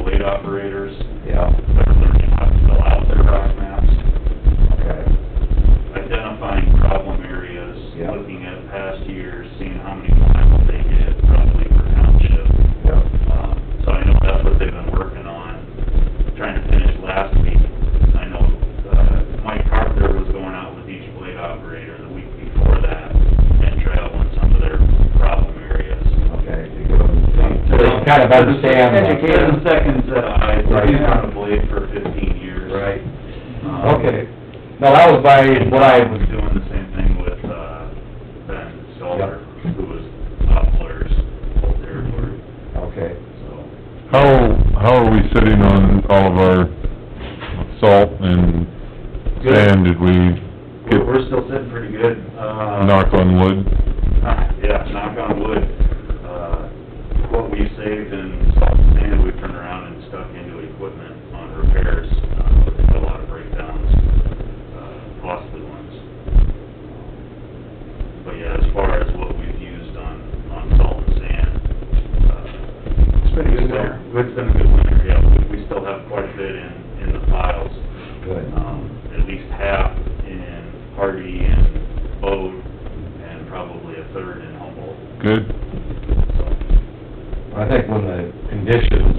operators, Yeah, they're learning how to fill out their rock maps, okay, identifying problem areas, Yeah. looking at past years, seeing how many miles they did roughly per township. yeah, Um, So I know that's what they've been working on, trying to finish last week. I know uh, Mike Carpenter was going out with each blade operator the week before that and traveling some of their problem areas. okay, to give them, so they kind of understand. what- Educate them seconds that I, Right. I've on a blade for fifteen years. Right, Um, okay. No, that was by, And what I was, doing the same thing with, uh, Ben Stoller, Yep. who was Poplar's old territory, okay, so. How, how are we sitting on all of our salt and Good. sand? Did we We're, get, we're still sitting pretty good, uh. knock on wood? Yeah, knock on wood, uh, what we saved in salt and sand, we turned around and stuck into equipment on repairs, uh, with a lot of breakdowns, uh, costly ones. But yeah, as far as what we've used on, on salt and sand, uh. It's been a good winter. It's been a good winter, yeah, we, we still have quite a bit in, in the piles, good, um, at least half in Hardy and Bode, and probably a third in Humboldt. Good? I think when the conditions,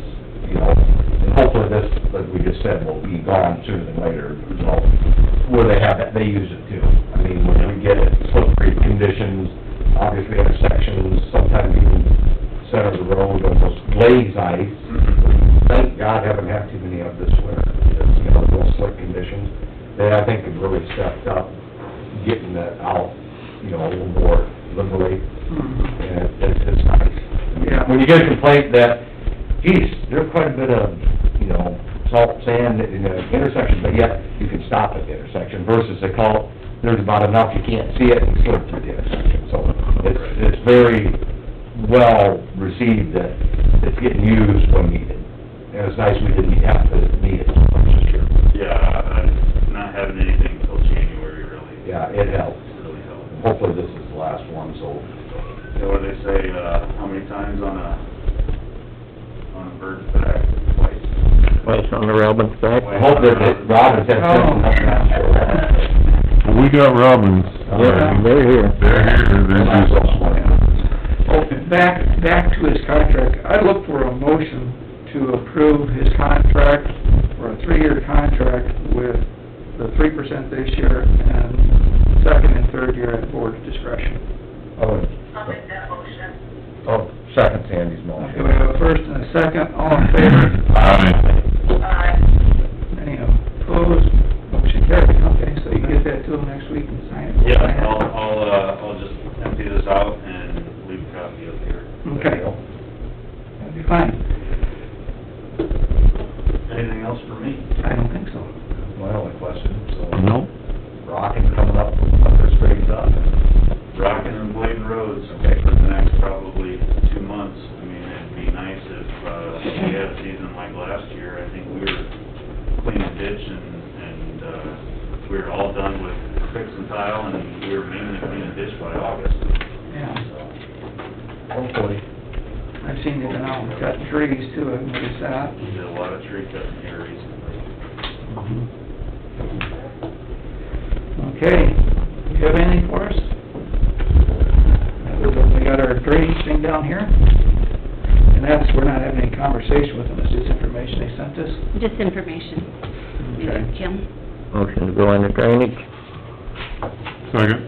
you know, and hopefully this, like we just said, will be gone sooner than later, you know, where they have it, they use it too. I mean, when we get it, slippery conditions, obviously intersections, sometimes even center of the road, almost glaze ice. Thank God haven't had too many of this winter, you know, those slick conditions. They, I think, have really stepped up, getting that out, you know, a little more liberally, and it's, it's nice. Yeah. When you get a complaint that, geez, there's quite a bit of, you know, salt, sand in the intersection, but yet you can stop at the intersection versus a call, there's about enough, you can't see it, and you slip through the intersection. So it's, it's very well received that it's getting used when needed. And it's nice we didn't have to need it so much this year. Yeah, I'm not having anything till January really, Yeah, it helped. really helped. Hopefully this is the last one, so, So what do they say, uh, how many times on a, on a bird's back? Twice. Place on the Robin's back? I hope that that Robin's had something up Well, we got robins. Yeah, They're here. They're here, they're just, Oh, back, back to his contract, I look for a motion to approve his contract, or a three-year contract with the three percent this year, and second and third year at board's discretion. I'll make that motion. Oh, second Sandy's Okay, motion. we have a first and a second, all in favor, aye. Aye. any opposed, motion carried, okay, so you get that to him next week and sign it. Yeah, I'll, I'll, uh, I'll just empty this out and leave a copy up here. Okay, that'd be fine, Anything else for me? I don't think so. My only question, so, Nope. rocking coming up, up this uh, grade up. Rockin' and blading roads Okay. for the next probably two months. I mean, it'd be nice if, uh, we had a season like last year. I think we were cleaning ditch and, and, uh, we were all done with fix and tile and we were mainly cleaning ditch by August, Yeah, so. Hopefully. I've seen you go out and cut trees too, I've noticed that. We did a lot of tree cutting here recently. Okay, do you have anything for us? Other than We got our drainage thing down here, and that's, we're not having any conversation with them, it's just information they sent us. Just information, Okay. Jim. Motion to go into drainage. Second.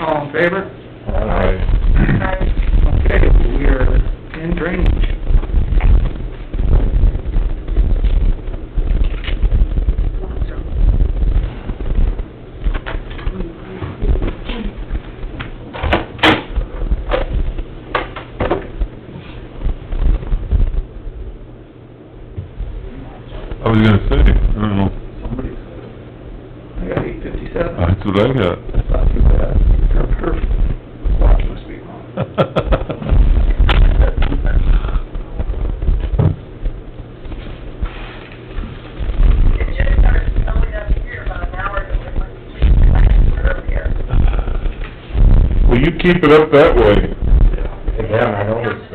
All in favor? Aye. Aye. Okay, we are in drainage. I was gonna say, I don't know, Somebody's, I got eight fifty-seven, that's what I got. Not too bad. or uh, perfect, clock must be wrong. It just started snowing up here about an hour ago, it was completely black earlier. Well, you keep it up that way. yeah. Again, I know it's uh,